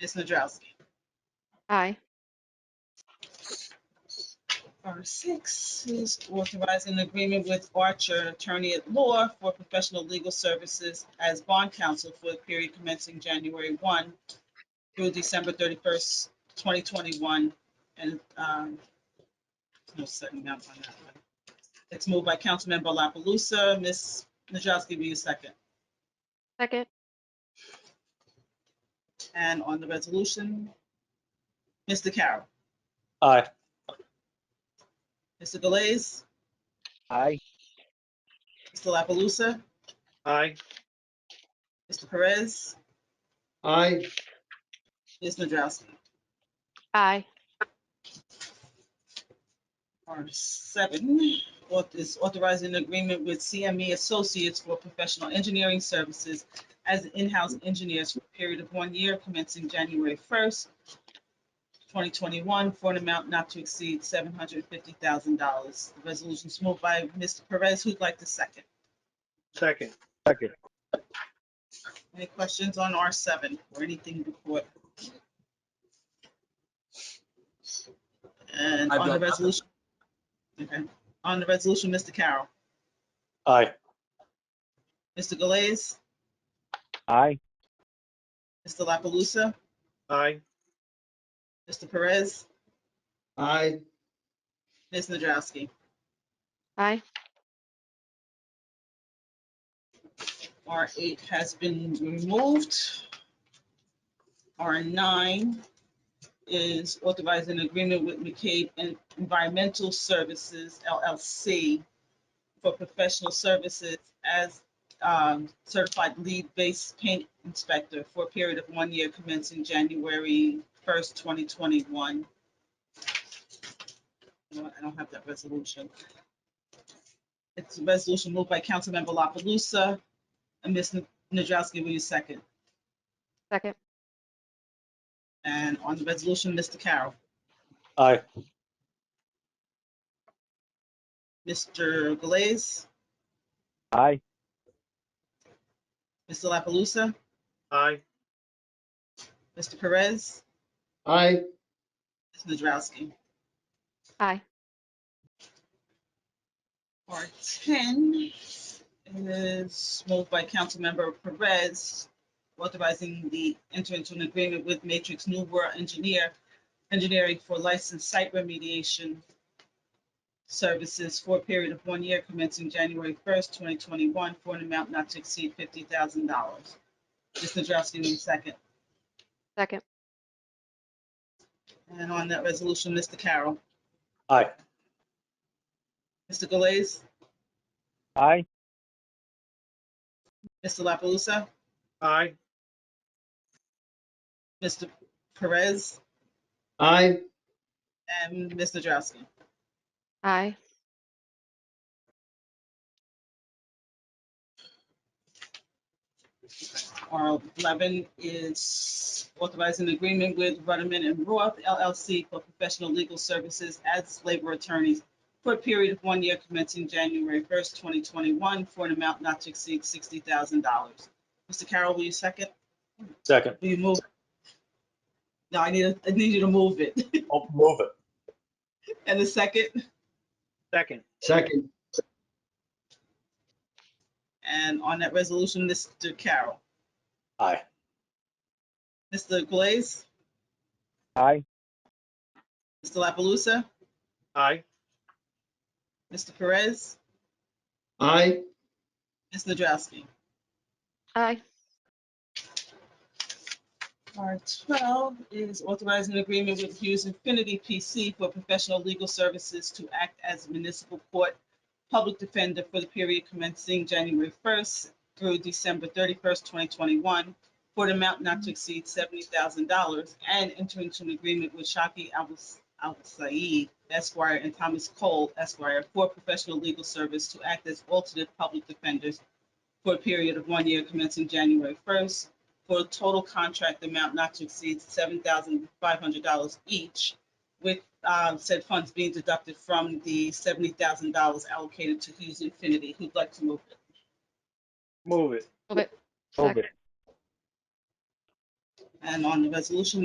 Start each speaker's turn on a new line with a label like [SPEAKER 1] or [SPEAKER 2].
[SPEAKER 1] Ms. Nadrowski.
[SPEAKER 2] Aye.
[SPEAKER 1] Number six is authorizing an agreement with Archer Attorney at Law for professional legal services as bond counsel for the period commencing January 1 through December 31st, 2021, and, um, no second map on that one. It's moved by Councilmember La Palusa. Ms. Nadrowski, will you second?
[SPEAKER 2] Second.
[SPEAKER 1] And on the resolution, Mr. Carroll,
[SPEAKER 3] Aye.
[SPEAKER 1] Mr. Galais,
[SPEAKER 3] Aye.
[SPEAKER 1] Mr. La Palusa,
[SPEAKER 3] Aye.
[SPEAKER 1] Mr. Perez,
[SPEAKER 3] Aye.
[SPEAKER 1] Ms. Nadrowski.
[SPEAKER 2] Aye.
[SPEAKER 1] R seven, auth- is authorizing an agreement with CME Associates for professional engineering services as in-house engineers for a period of one year commencing January first, twenty twenty-one, for an amount not to exceed seven hundred fifty thousand dollars. The resolution is moved by Mr. Perez, who'd like to second.
[SPEAKER 3] Second.
[SPEAKER 1] Any questions on R seven or anything before? And
[SPEAKER 4] I've
[SPEAKER 1] on the
[SPEAKER 4] got nothing.
[SPEAKER 1] resolution. Okay, on the resolution, Mr. Carroll,
[SPEAKER 3] Aye.
[SPEAKER 1] Mr. Galais?
[SPEAKER 3] Aye.
[SPEAKER 1] Mr. La Palusa,
[SPEAKER 3] Aye.
[SPEAKER 1] Mr. Perez,
[SPEAKER 3] Aye.
[SPEAKER 1] Ms. Nadrowski.
[SPEAKER 2] Aye.
[SPEAKER 1] R eight has been removed. R nine is authorizing an agreement with McCabe En- Environmental Services LLC for professional services as um, certified lead-based paint inspector for a period of one year commencing January first, twenty twenty-one. I don't have that resolution. It's a resolution moved by Councilmember La Palusa, and Ms. Nadrowski, will you second?
[SPEAKER 2] Second.
[SPEAKER 1] And on the resolution, Mr. Carroll,
[SPEAKER 3] Aye.
[SPEAKER 1] Mr. Galais,
[SPEAKER 3] Aye.
[SPEAKER 1] Mr. La Palusa,
[SPEAKER 3] Aye.
[SPEAKER 1] Mr. Perez,
[SPEAKER 3] Aye.
[SPEAKER 1] Ms. Nadrowski.
[SPEAKER 2] Aye.
[SPEAKER 1] R ten is moved by Councilmember Perez, authorizing the enter into an agreement with Matrix New World Engineer, engineering for licensed site remediation services for a period of one year commencing January first, twenty twenty-one, for an amount not to exceed fifty thousand dollars. Ms. Nadrowski, will you second?
[SPEAKER 2] Second.
[SPEAKER 1] And on that resolution, Mr. Carroll.
[SPEAKER 3] Aye.
[SPEAKER 1] Mr. Galais,
[SPEAKER 3] Aye.
[SPEAKER 1] Mr. La Palusa,
[SPEAKER 3] Aye.
[SPEAKER 1] Mr. Perez,
[SPEAKER 3] Aye.
[SPEAKER 1] and Ms. Nadrowski.
[SPEAKER 2] Aye.
[SPEAKER 1] R eleven is authorizing agreement with Rudderman and Roth LLC for professional legal services as labor attorneys for a period of one year commencing January first, twenty twenty-one, for an amount not to exceed sixty thousand dollars. Mr. Carroll, will you second?
[SPEAKER 3] Second.
[SPEAKER 1] Will you move? No, I need, a- I need you to move it.
[SPEAKER 3] Oh, Move it.
[SPEAKER 1] And the second,
[SPEAKER 3] Second.
[SPEAKER 5] Second,
[SPEAKER 1] and on that resolution, Mr. Carroll,
[SPEAKER 3] Aye.
[SPEAKER 1] Mr. Galais,
[SPEAKER 3] Aye.
[SPEAKER 1] Mr. La Palusa,
[SPEAKER 3] Aye.
[SPEAKER 1] Mr. Perez,
[SPEAKER 5] aye,
[SPEAKER 1] Ms. Nadrowski.
[SPEAKER 2] Aye.
[SPEAKER 1] R twelve is authorizing an agreement with Hughes Infinity PC for professional legal services to act as municipal court public defender for the period commencing January first through December thirty-first, twenty twenty-one, for an amount not to exceed seventy thousand dollars, and enter into an agreement with Shaki Al Saeed Esquire and Thomas Cole Esquire for professional legal service to act as alternate public defenders for a period of one year commencing January first for a total contract amount not to exceed seven thousand five hundred dollars each, with um, said funds being deducted from the seventy thousand dollars allocated to Hughes Infinity. Who'd like to move it?
[SPEAKER 3] Move it.
[SPEAKER 2] Move it.
[SPEAKER 3] Move it.
[SPEAKER 2] Second.
[SPEAKER 1] And on the resolution